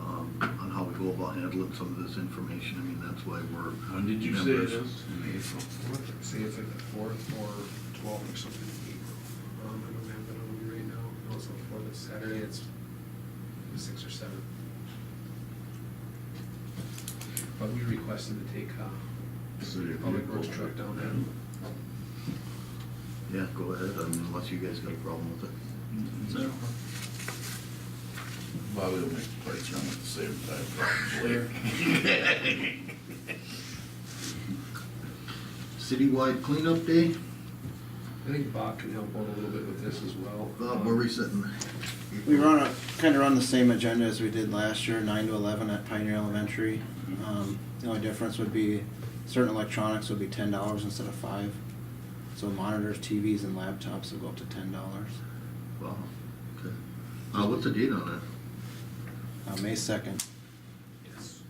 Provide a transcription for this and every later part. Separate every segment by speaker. Speaker 1: um, capable about handling some of this information. I mean, that's why we're.
Speaker 2: When did you say it
Speaker 1: members.
Speaker 2: is?
Speaker 3: In April fourth, see if it's the fourth or twelfth or something in April. Um, I don't have that on me right now, no, it's not fourth, it's Saturday, it's the sixth or seventh. But we requested to take, uh,
Speaker 1: City of
Speaker 3: public
Speaker 1: April.
Speaker 3: works truck down there.
Speaker 1: Yeah, go ahead, I mean, unless you guys got a problem with it.
Speaker 2: Zero. Bobby will make the price run at the same time, probably.
Speaker 1: Citywide cleanup day,
Speaker 3: I think Bob can help out a little bit with this as well.
Speaker 1: Bob, where we sitting?
Speaker 4: We run a, kind of run the same agenda as we did last year, nine to eleven at Pioneer Elementary. Um, the only difference would be certain electronics would be ten dollars instead of five. So monitors, TVs and laptops will go up to ten dollars.
Speaker 1: Wow, okay. Uh, what's the date on
Speaker 4: Uh, May second.
Speaker 3: Um, Yes.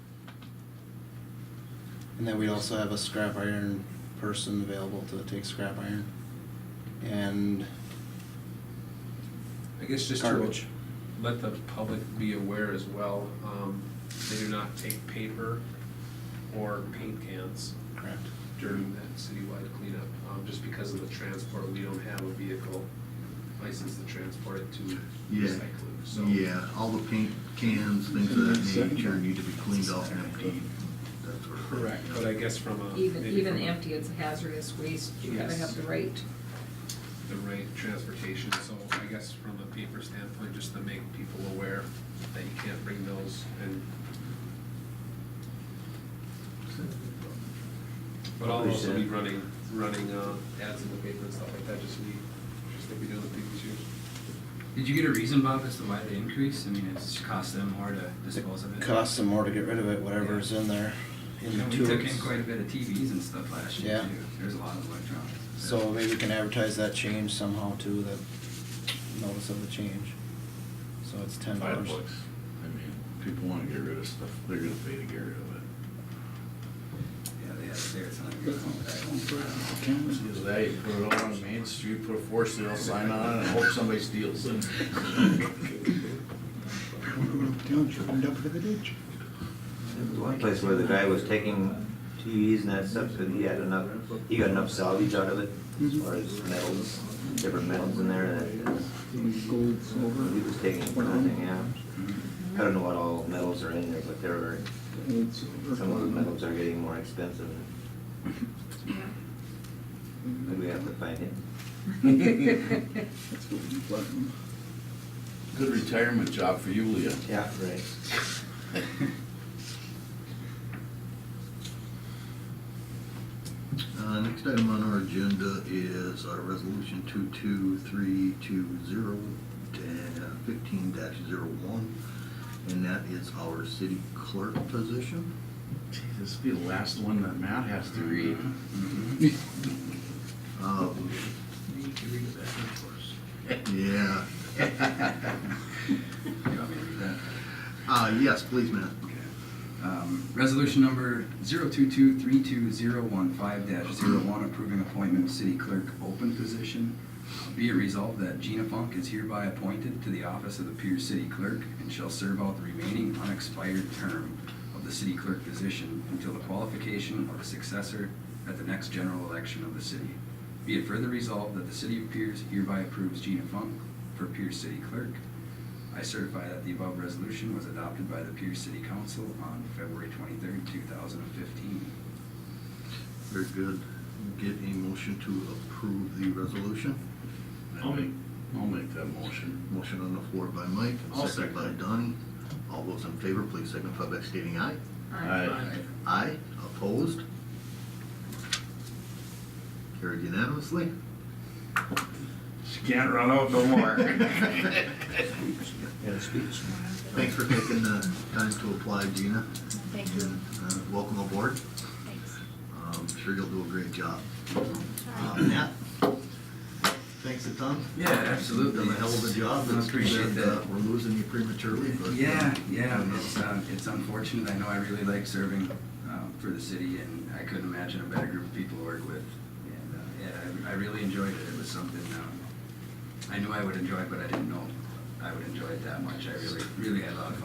Speaker 4: And then we also have a scrap iron person available to take scrap iron. And
Speaker 3: I guess just to
Speaker 4: Garbage.
Speaker 3: let the public be aware as well, um, they do not take paper or paint cans
Speaker 4: correct.
Speaker 3: during that citywide cleanup, um, just because of the transport, we don't have a vehicle license to transport it to
Speaker 1: Yeah.
Speaker 3: recycling, so.
Speaker 1: that? Yeah, all the paint cans, things of that nature need to be cleaned off and emptied. That sort of thing,
Speaker 3: Correct,
Speaker 1: yeah.
Speaker 3: but I guess from a.
Speaker 5: Even,
Speaker 3: maybe
Speaker 5: even
Speaker 3: from a-
Speaker 5: empty, it's hazardous waste, you gotta
Speaker 3: Yes.
Speaker 5: have the right.
Speaker 3: The right transportation, so I guess from a paper standpoint, just to make people aware that you can't bring those and, but I'll also be
Speaker 1: Understand.
Speaker 3: running, running, uh, ads in the paper and stuff like that, just to be, just to be doing the previous years.
Speaker 6: Did you get a reason, Bob, as to why the increase? I mean, it's cost them more to dispose of
Speaker 4: It
Speaker 6: it.
Speaker 4: costs them more to get rid of it, whatever's in there.
Speaker 6: You
Speaker 4: in the
Speaker 6: know, we
Speaker 4: tubes.
Speaker 6: took in quite a bit of TVs and stuff last year
Speaker 4: Yeah.
Speaker 6: too. There's a lot of electronics.
Speaker 4: So maybe we can advertise that change somehow too, that notice of the change. So it's ten
Speaker 2: Five
Speaker 4: dollars.
Speaker 2: bucks. I mean, people wanna get rid of stuff, they're gonna pay to get rid of it.
Speaker 6: Yeah, they had it there. It's not like you're going back.
Speaker 2: Because that, you put it on Main Street, put a for sale sign on it, and hope somebody steals it.
Speaker 7: Township end up with a ditch.
Speaker 8: The One place where the guy was taking TVs and that stuff, but he had enough, he got enough salvage out of it, as far as metals, different metals in there, that
Speaker 7: Gold,
Speaker 1: uh,
Speaker 7: silver.
Speaker 8: he was taking for nothing, yeah. I don't know what all metals are in there, but there are,
Speaker 7: Gold,
Speaker 1: uh,
Speaker 7: silver.
Speaker 8: some of the metals are getting more expensive, and we have to find it.
Speaker 7: That's gold and platinum.
Speaker 2: Good retirement job for you, Leah.
Speaker 8: Yeah, right.
Speaker 1: Uh, next item on our agenda is our resolution two-two-three-two-zero uh, fifteen dash zero-one, and that is our city clerk position.
Speaker 2: Gee, This will be the last one that Matt has to read.
Speaker 4: mm-hmm.
Speaker 6: Mm-hmm.
Speaker 1: Uh,
Speaker 2: You can read it back and
Speaker 1: yeah,
Speaker 6: You want me to read that?
Speaker 1: uh, yes, please, Matt.
Speaker 6: Um, Resolution number 022-32015-01, approving appointment of city clerk open position. Uh, Be it resolved that Gina Funk is hereby appointed to the office of the Pierce City Clerk and shall serve out the remaining unexpired term of the city clerk position until the qualification of a successor at the next general election of the city. Be it further resolved that the city of Pierce hereby approves Gina Funk for Pierce City Clerk I certify that the above resolution was adopted by the Pierce City Council on February twenty-third, two thousand and fifteen.
Speaker 1: Very good. Get a motion to approve the resolution.
Speaker 2: I'll make, I'll make that motion.
Speaker 1: Motion on the floor by Mike,
Speaker 2: I'll
Speaker 1: second by
Speaker 2: second.
Speaker 1: Donnie. All those in favor, please signify by stating aye.
Speaker 2: Aye.
Speaker 1: Aye, opposed? Carried unanimously.
Speaker 2: She can't run out no more.
Speaker 8: Yeah, speech.
Speaker 1: Thanks for taking the time to apply, Gina.
Speaker 9: Thank you.
Speaker 1: And, uh, Welcome aboard. Um,
Speaker 9: Thanks.
Speaker 1: I'm sure you'll do a great job. Uh, Matt, thanks a ton.
Speaker 6: Yeah, absolutely.
Speaker 1: Done a hell of a job.
Speaker 6: I appreciate
Speaker 1: It's too bad,
Speaker 6: that.
Speaker 1: uh, We're losing you prematurely, but. uh,
Speaker 6: Yeah, yeah, it's, uh, it's unfortunate. I know I really like serving, um, for the city and I couldn't imagine a better group of people to work with. And, uh, yeah, I, I really enjoyed it. It was something, um, I knew I would enjoy, but I didn't know I would enjoy it that much. I really, really had a lot of fun.